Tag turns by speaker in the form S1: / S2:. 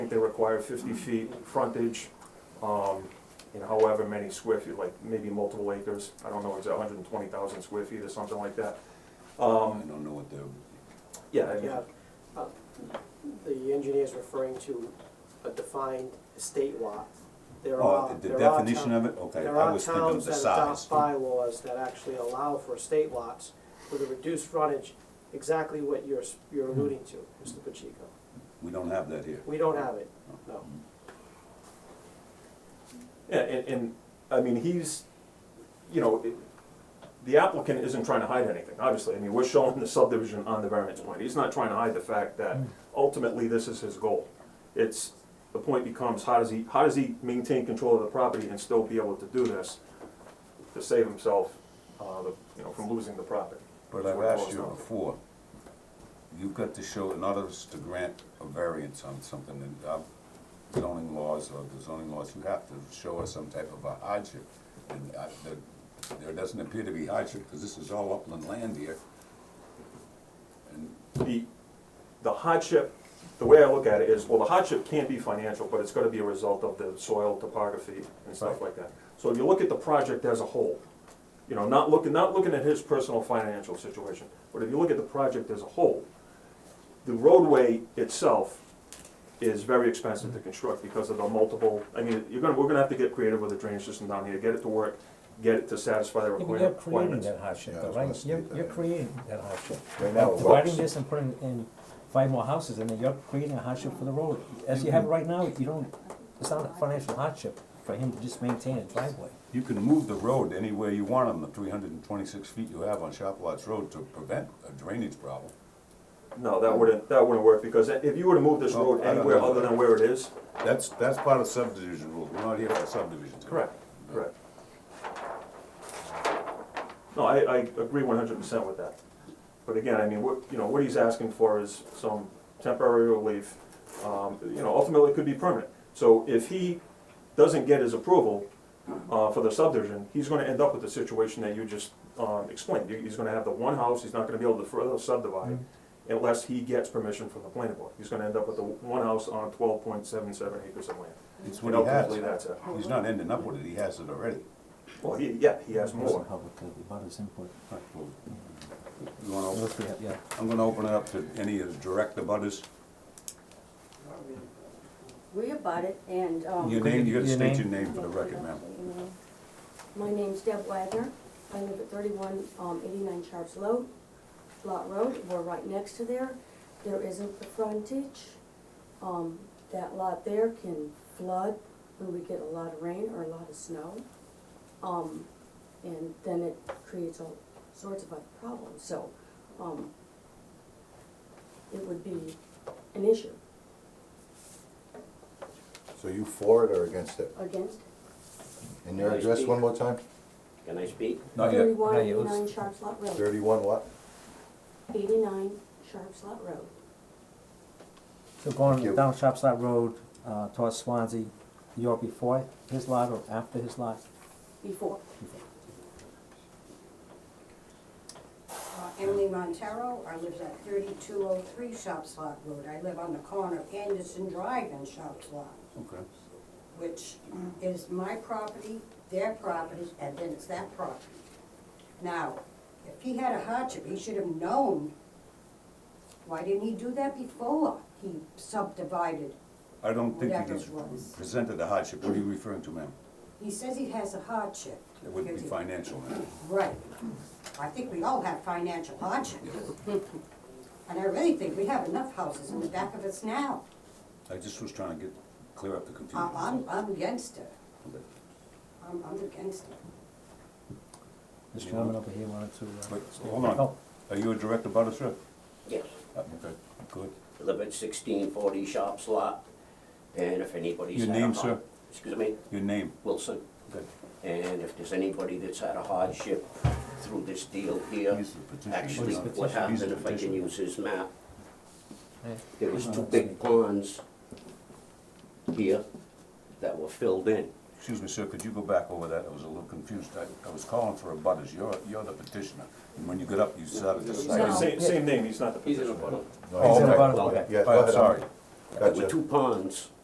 S1: they require fifty feet frontage, um, and however many square feet, like maybe multiple acres. I don't know, it's hundred and twenty thousand square feet or something like that.
S2: I
S1: Um,
S2: don't know what the,
S1: yeah, I mean,
S3: Yeah, uh, the engineer's referring to a defined estate lot. There
S2: oh,
S3: are,
S2: the
S3: there are
S2: definition
S3: town-
S2: of it, okay,
S3: There
S2: I
S3: are
S2: was thinking of
S3: towns
S2: the
S3: that
S2: size.
S3: adopt bylaws that actually allow for estate lots with a reduced frontage, exactly what you're, s- you're
S2: Hmm.
S3: alluding to, Mr. Pacheco.
S2: We don't have that here.
S3: We don't have it, no.
S1: Yeah, and, and, I mean, he's, you know, it- the applicant isn't trying to hide anything, obviously. I mean, we're showing the subdivision on the variance point. He's not trying to hide the fact that ultimately this is his goal. It's, the point becomes, how does he, how does he maintain control of the property and still be able to do this to save himself, uh, the- you know, from losing the property?
S2: But
S1: That's
S2: I've
S1: what it
S2: asked
S1: boils
S2: you
S1: down to.
S2: before, you've got to show, in order to grant a variance on something, and uh, zoning laws or the zoning laws, you have to show us some type of a hardship. And I, there, there doesn't appear to be hardship, because this is all upland land here. And
S1: the, the hardship, the way I look at it is, well, the hardship can be financial, but it's gonna be a result of the soil topography and stuff like
S2: Right.
S1: that. So if you look at the project as a whole, you know, not looking, not looking at his personal financial situation, but if you look at the project as a whole, the roadway itself is very expensive to construct because of the multiple, I mean, you're gonna, we're gonna have to get creative with the drainage system down here, get it to work, get it to satisfy the
S4: Yeah, but You're
S1: requirement-
S4: creating
S1: requirements.
S4: that hardship,
S5: Yeah, I
S4: though,
S5: was gonna
S4: right?
S5: say
S4: You're,
S5: that,
S4: you're
S5: yeah.
S4: creating that hardship.
S5: Right now,
S4: By
S5: it
S4: Dividing
S5: works.
S4: this and putting in five more houses in there, you're creating a hardship for the road. As you have right now, you don't, it's not a financial hardship for him to just maintain a driveway.
S2: you can move the road anywhere you want on the three hundred and twenty-six feet you have on Shop Lots Road to prevent a drainage problem.
S1: No, that wouldn't, that wouldn't work, because if you were to move this
S2: Well,
S1: road
S2: Oh, I don't
S1: anywhere
S2: know.
S1: other than where it is,
S2: That's, that's part of subdivision rule, we're not here for subdivisions.
S1: Correct, correct. No, I, I agree one hundred percent with that. But again, I mean, what, you know, what he's asking for is some temporary relief, um, you know, ultimately it could be permanent. So if he doesn't get his approval, uh, for the subdivision, he's gonna end up with the situation that you just, um, explained. He- He's gonna have the one house, he's not gonna be able to further subdivide unless he gets permission from the planning board. He's gonna end up with the one house on twelve point seven seven acres of land.
S2: It's
S1: And
S2: what he has.
S1: ultimately, that's it.
S2: He's not ending up with it, he has it already.
S1: Well, he, yeah, he has more.
S2: You wanna open-
S4: Unless we have- yeah.
S2: I'm gonna open it up to any of the direct abutters.
S6: We abut it and,
S7: Oh.
S6: um.
S2: Your name, you gotta
S4: Your
S2: state your
S4: name?
S2: name for the record, ma'am.
S6: My name's Deb Wagner. I live at thirty-one, um, eighty-nine Sharps Road, Lot Road. We're right next to there. There isn't the frontage. Um, that lot there can flood when we get a lot of rain or a lot of snow. Um, and then it creates all sorts of other problems, so, um, it would be an issue
S5: So you for it or against it?
S6: against
S5: And your address one more time?
S8: Can I speak?
S2: Not yet.
S6: thirty-one
S4: Not yet.
S6: eighty-nine Sharps Lot Road.
S5: Thirty-one what?
S6: 89 Sharps Lot Road.
S4: So
S5: Thank
S4: going
S5: you.
S4: down Shopside Road, uh, towards Swansea, you're before his lot or after his lot?
S6: Before,
S7: Uh, Emily Montero, I live at thirty-two oh three Shops Lot Road. I live on the corner of Anderson Drive and Shops Lot,
S2: Okay.
S7: which is my property, their property, and then it's that property. Now, if he had a hardship, he should have known. Why didn't he do that before he subdivided?
S2: I don't think
S7: Whatever
S2: you
S7: it
S2: just
S7: was.
S2: presented a hardship, what are you referring to, ma'am?
S7: He says he has a hardship.
S2: It wouldn't be
S7: because he-
S2: financial, ma'am.
S7: Right. I think we all have financial hardship. And I really think we have enough houses in the back of us now.
S2: I just was trying to get, clear up the confusion.
S7: I- Uh, I'm, I'm against it.
S2: Okay.
S7: I'm, I'm against it.
S4: This gentleman over here wanted to, uh.
S2: But, hold on,
S4: Oh,
S2: are you a direct abutter, sir?
S8: Yes.
S2: Uh, Okay, good.
S8: I live at sixteen forty Shops Lot, and if anybody's
S2: Your
S8: had a
S2: name,
S8: har-
S2: sir?
S8: Excuse me,
S2: Your name?
S8: Wilson,
S2: Good.
S8: and if there's anybody that's had a hardship through this deal here,
S2: He's the petitioner.
S8: actually,
S2: He's the
S8: what
S2: petitioner. He's
S8: happened,
S2: the
S8: if I can
S2: petitioner.
S8: use his map,
S4: yeah.
S8: there was two
S4: Uh,
S8: big ponds here that were filled in.
S2: Excuse me, sir, could you go back over that? I was a little confused. I, I was calling for abutters, you're, you're the petitioner. And when you got up, you started to
S6: No.
S2: say.
S1: Same, same name, he's not the petitioner.
S5: No,
S4: He's in
S2: okay.
S4: about
S5: Yeah, go
S2: Oh,
S5: ahead.
S2: sorry.
S8: There were
S5: Gotcha.
S8: two ponds